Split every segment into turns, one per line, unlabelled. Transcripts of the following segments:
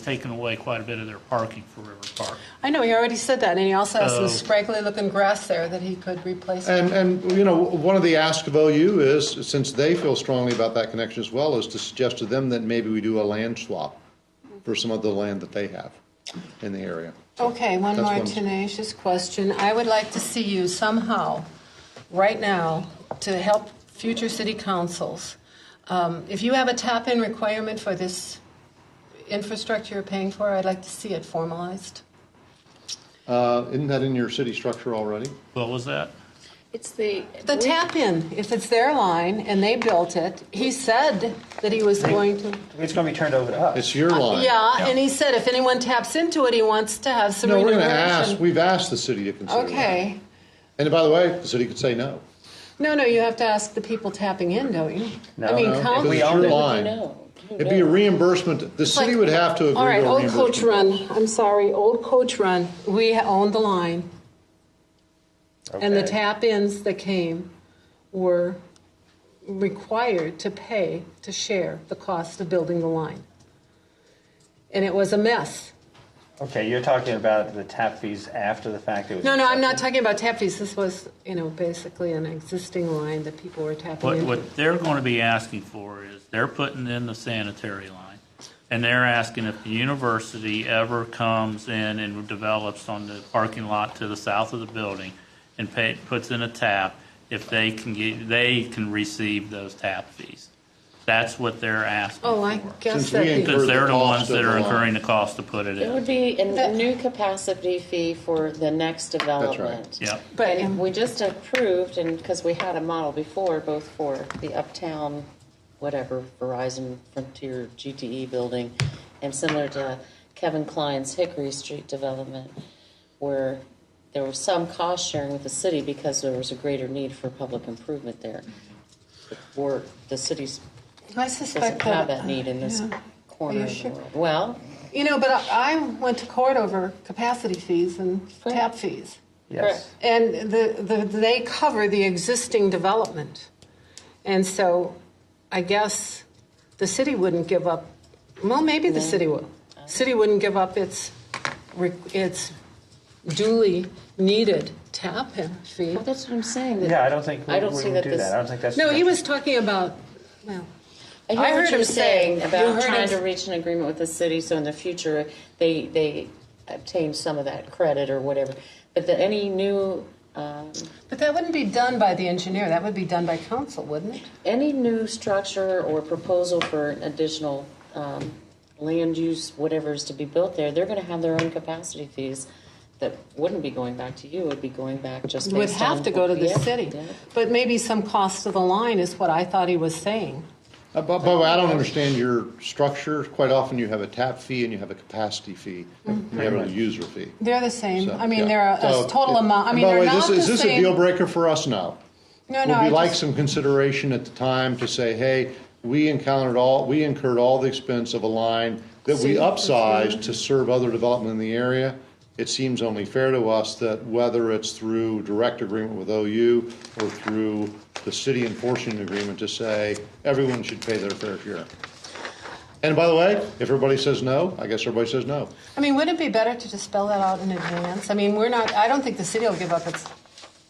taken away quite a bit of their parking for River Park.
I know, he already said that, and he also has
Oh.
some scraggly looking grass there that he could replace.
And, and, you know, one of the asks of OU is, since they feel strongly about that connection as well, is to suggest to them that maybe we do a land swap for some of the land that they have in the area.
Okay, one
That's
more
one-
tenacious question. I would like to see you somehow, right now, to help future city councils. Um, If you have a top-end requirement for this infrastructure you're paying for, I'd like to see it formalized.
Uh, Isn't that in your city structure already?
What was that?
It's the.
The tap-in, if it's their line and they built it, he said that he was going to...
It's going to be turned over to us.
It's your line.
Uh, Yeah, and he said if anyone taps into it, he wants to have some
No, we're
remuneration.
gonna ask, we've asked the city to consider that.
Okay.
And by the way, the city could say no.
No, no, you have to ask the people tapping in, don't you? I
No,
mean,
No,
council-
because
We
it's
own
your
it.
line. It'd be a reimbursement, the city would have to agree to a
All right, Old
reimbursement.
Coach Run, I'm sorry, Old Coach Run, we owned the line. And the
Okay.
tap-ins that came were required to pay to share the cost of building the line. And it was a mess.
Okay, you're talking about the tap fees after the fact. It was
No, no, I'm not talking about tap fees, this was, you know, basically an existing line that people were tapping
What,
into.
what they're going to be asking for is, they're putting in the sanitary line, and they're asking if the university ever comes in and develops on the parking lot to the south of the building and pay, puts in a tap, if they can get, they can receive those tap fees. That's what they're asking
Oh, I
for.
guess
Since we
that,
incur-
the-
Because they're the ones
Cost of uh,
that are
the line.
incurring the cost to put it
It would
in.
be a
That-
new capacity fee for the next development.
Yep.
But-
And if we just approved, and, because we had a model before, both for the Uptown, whatever, Verizon Frontier GTE building, and similar to Kevin Klein's Hickory Street development, where there was some cost sharing with the city because there was a greater need for public improvement there. Or the city's
I
doesn't
suspect
have
that.
that need in this
yeah.
corner
you
of the
sure?
world. Well,
You know, but I I went to court over capacity fees and
Right.
tap fees.
Yes.
And the, the, they cover the existing development. And so I guess the city wouldn't give up, well, maybe the city will. City wouldn't give up its, re- its duly needed tap in fee.
Well, that's what I'm saying. that-
Yeah, I don't think we
I don't
we
see
would
that
do
this-
that. I don't think that's.
No, he was talking about, well,
I
I
hear
heard
what you're
him saying-
saying
you
about
heard
trying
him-
to reach an agreement with the city, so in the future, they, they obtain some of that credit or whatever. But that any new, um,
but that wouldn't be done by the engineer. That would be done by council, wouldn't it?
any new structure or proposal for additional um, land use, whatever is to be built there, they're going to have their own capacity fees that wouldn't be going back to you, would be going back just based
Would have
on-
to go to the
Yeah,
city.
yeah.
But maybe some cost of the line is what I thought he was saying.
Uh, By by the way, I don't understand your structure. Quite often you have a tap fee and you have a capacity fee. and You have a user fee.
They're the same.
So,
Mm, I mean,
yeah.
they're a, a
So,
total
yeah.
amount. I
And
mean,
by the
they're
way,
not
this-
the
Is this a
same.
deal breaker for us? No.
No, no.
Would
I
we like
just-
some consideration at the time to say, hey, we encountered all, we incurred all the expense of a line that we upsized to serve other development in the area? It seems only fair to us that whether it's through direct agreement with OU or through the city enforcing an agreement to say, everyone should pay their fair share. And by the way, if everybody says no, I guess everybody says no.
I mean, wouldn't it be better to just spell that out in advance? I mean, we're not. I don't think the city will give up its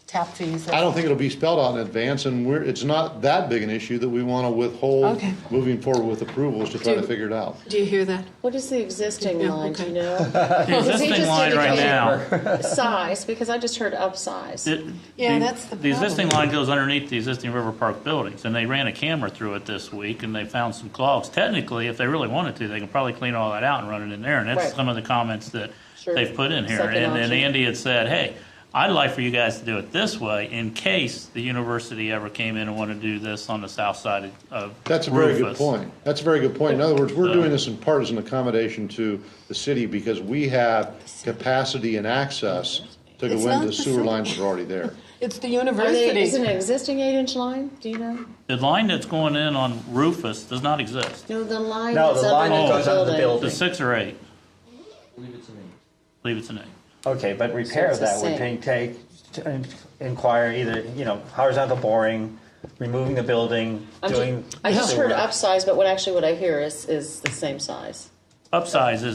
tap fees.
I don't think it'll be spelled out in advance, and we're, it's not that big an issue that we want to withhold
Okay.
moving forward with approvals to try to
Do-
figure it out.
Do you hear that?
What is the existing
Yeah,
line, do you
okay.
know?
The
he
existing
just
line right
indicated-
now,
Size, because I just heard upsize.
The-
Yeah, that's the
existing
problem.
line goes underneath the existing River Park buildings, and they ran a camera through it this week, and they found some clogs. Technically, if they really wanted to, they can probably clean all that out and run it in there, and that's
Right.
some of the comments that
Sure.
they've put in here.
Second
And and
option.
Andy had said, hey, I'd like for you guys to do it this way, in case the university ever came in and wanted to do this on the south side of Rufus.
That's a very good point. That's a very good point. In other words, we're
So-
doing this in part as an accommodation to the city because we have capacity and access to
It's
go
not
into
the
sewer
city.
lines that are already there.
It's the
Are they-
university.
Is it an existing eight-inch line, do you know?
The line that's going in on Rufus does not exist.
No, the line
No,
that's
the line that
underneath
goes under the
It's
building.
a six or eight.
Leave it to me.
Believe it's an eight.
Okay, but repair of
So it's
that
the
would
same.
take, take, t- in- inquire either, you know, horizontal boring, removing the building,
I'm ju-
doing.
I just
sewer.
heard upsize, but what actually what I hear is, is the same size.
Upsize is